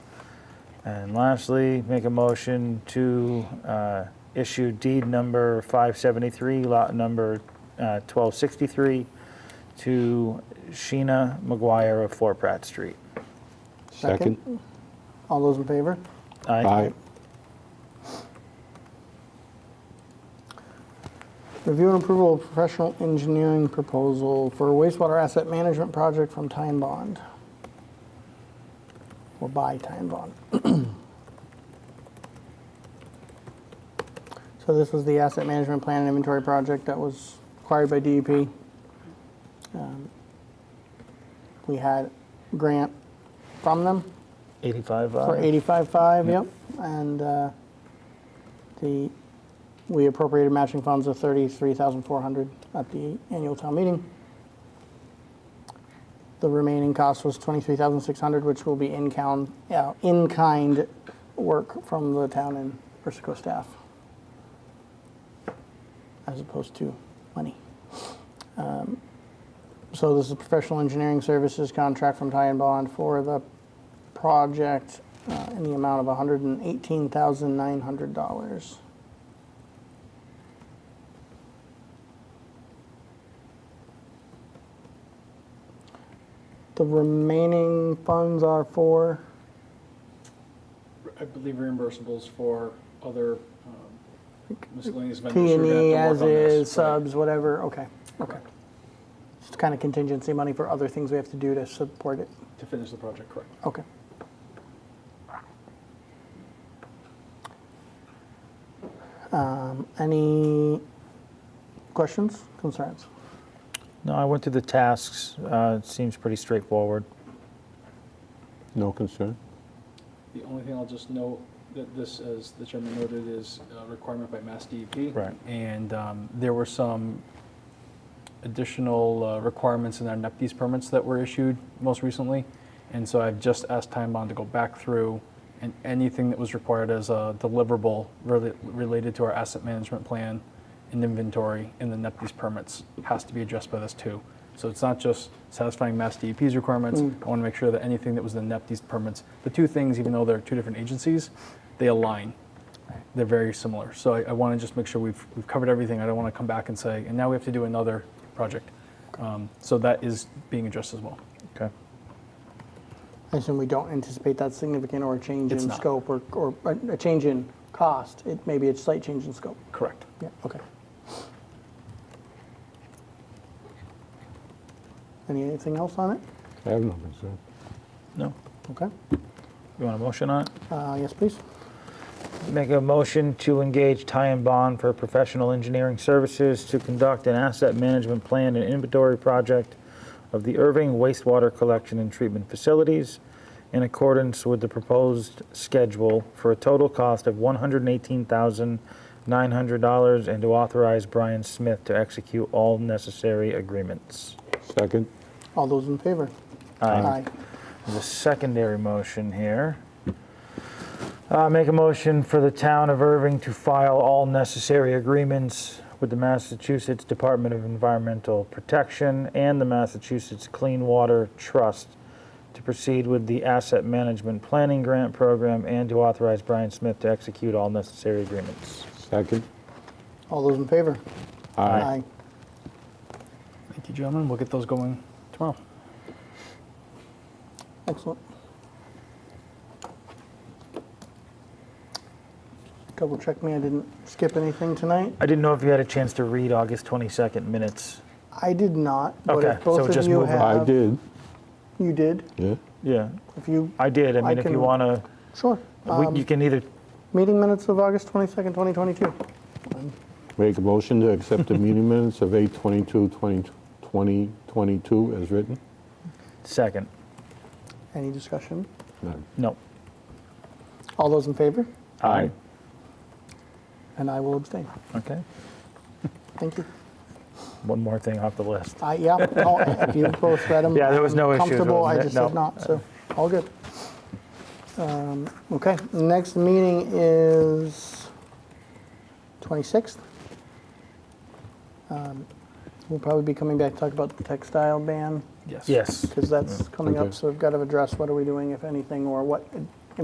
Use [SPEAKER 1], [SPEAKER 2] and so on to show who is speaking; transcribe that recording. [SPEAKER 1] And lastly, make a motion to uh, issue deed number 573, lot number uh, 1263, to Sheena McGuire of 4 Pratt Street.
[SPEAKER 2] Second?
[SPEAKER 3] All those in favor?
[SPEAKER 2] Aye.
[SPEAKER 3] Review and approval of professional engineering proposal for wastewater asset management project from Time Bond. Or by Time Bond. So this was the asset management plan and inventory project that was acquired by DEP. Um, We had grant from them
[SPEAKER 1] 85,
[SPEAKER 3] for
[SPEAKER 1] aye.
[SPEAKER 3] eighty-five-five, yep, and uh, the, we appropriated matching funds of thirty-three thousand four hundred at the annual town meeting. The remaining cost was twenty-three thousand six hundred, which will be in-kind, yeah, in-kind work from the town and Persico staff. As opposed to money. Um, So this is professional engineering services contract from Ty and Bond for the project uh, in the amount of $118,900. The remaining funds are for,
[SPEAKER 4] I believe reimbursables for other um, miscellaneous vendors
[SPEAKER 3] P
[SPEAKER 4] who are
[SPEAKER 3] and E
[SPEAKER 4] gonna have
[SPEAKER 3] as
[SPEAKER 4] to work on this.
[SPEAKER 3] is,
[SPEAKER 4] Right.
[SPEAKER 3] subs, whatever, okay, okay. It's kind of contingency money for other things we have to do to support it,
[SPEAKER 4] To finish the project, correct.
[SPEAKER 3] okay. Um, Any questions, concerns?
[SPEAKER 1] No, I went through the tasks. Uh, It seems pretty straightforward.
[SPEAKER 2] No concern?
[SPEAKER 4] The only thing I'll just note that this, as the chairman noted, is a requirement by Mass DEP.
[SPEAKER 1] Right.
[SPEAKER 4] And um, there were some additional uh, requirements in our NEPDES permits that were issued most recently. And so I've just asked Time Bond to go back through and anything that was required as a deliverable rela- related to our asset management plan and inventory and the NEPDES permits has to be addressed by this too. So it's not just satisfying Mass DEP's requirements. I want to make sure that anything that was in the NEPDES permits, the two things, even though they're two different agencies, they align they're very similar. So I, I want to just make sure we've, we've covered everything. I don't want to come back and say, and now we have to do another project. Um, so that is being addressed as well.
[SPEAKER 1] Okay.
[SPEAKER 3] I assume we don't anticipate that significant or a change in
[SPEAKER 4] It's not.
[SPEAKER 3] scope or, or a a change in cost. It, maybe it's slight change in scope.
[SPEAKER 4] Correct.
[SPEAKER 3] Yeah, okay. Anything else on it?
[SPEAKER 2] I have no concern.
[SPEAKER 1] No?
[SPEAKER 3] Okay.
[SPEAKER 1] You want a motion on it?
[SPEAKER 3] Uh, yes, please.
[SPEAKER 1] Make a motion to engage Ty and Bond for professional engineering services to conduct an asset management plan and inventory project of the Irving wastewater collection and treatment facilities in accordance with the proposed schedule for a total cost of $118,900 and to authorize Brian Smith to execute all necessary agreements.
[SPEAKER 2] Second?
[SPEAKER 3] All those in favor? Aye.
[SPEAKER 1] There's a secondary motion here. Uh, Make a motion for the town of Irving to file all necessary agreements with the Massachusetts Department of Environmental Protection and the Massachusetts Clean Water Trust to proceed with the Asset Management Planning Grant Program and to authorize Brian Smith to execute all necessary agreements.
[SPEAKER 2] Second?
[SPEAKER 3] All those in favor?
[SPEAKER 2] Aye.
[SPEAKER 4] Thank you, gentlemen. We'll get those going tomorrow.
[SPEAKER 3] Excellent. Double check me, I didn't skip anything tonight.
[SPEAKER 1] I didn't know if you had a chance to read August 22nd minutes.
[SPEAKER 3] I did not, but
[SPEAKER 1] Okay,
[SPEAKER 3] if
[SPEAKER 1] so
[SPEAKER 3] both of
[SPEAKER 1] just
[SPEAKER 3] you
[SPEAKER 1] move on.
[SPEAKER 2] I
[SPEAKER 3] have,
[SPEAKER 2] did,
[SPEAKER 3] you did,
[SPEAKER 2] yeah.
[SPEAKER 1] Yeah,
[SPEAKER 3] if you,
[SPEAKER 1] I did. I
[SPEAKER 3] I
[SPEAKER 1] mean, if you
[SPEAKER 3] can-
[SPEAKER 1] want to,
[SPEAKER 3] sure. Um,
[SPEAKER 1] you can either,
[SPEAKER 3] Meeting minutes of August 22nd, 2022.
[SPEAKER 2] Make a motion to accept the meeting minutes of 8/22/2022 as written?
[SPEAKER 1] second.
[SPEAKER 3] Any discussion?
[SPEAKER 2] None.
[SPEAKER 1] No.
[SPEAKER 3] All those in favor?
[SPEAKER 1] Aye.
[SPEAKER 3] And I will abstain.
[SPEAKER 1] Okay.
[SPEAKER 3] Thank you.
[SPEAKER 1] one more thing off the list.
[SPEAKER 3] I, Uh, yeah, no, if you both read them.
[SPEAKER 1] Yeah, there was no issues,
[SPEAKER 3] Comfortable, I
[SPEAKER 1] wasn't
[SPEAKER 3] just
[SPEAKER 1] it?
[SPEAKER 3] said
[SPEAKER 1] No.
[SPEAKER 3] not, so, all good. Um, Okay, next meeting is 26th. Um, We'll probably be coming back to talk about the textile ban,
[SPEAKER 4] Yes.
[SPEAKER 1] Yes.
[SPEAKER 3] because that's coming up,
[SPEAKER 2] Okay.
[SPEAKER 3] so we've got to address what are we doing, if anything, or what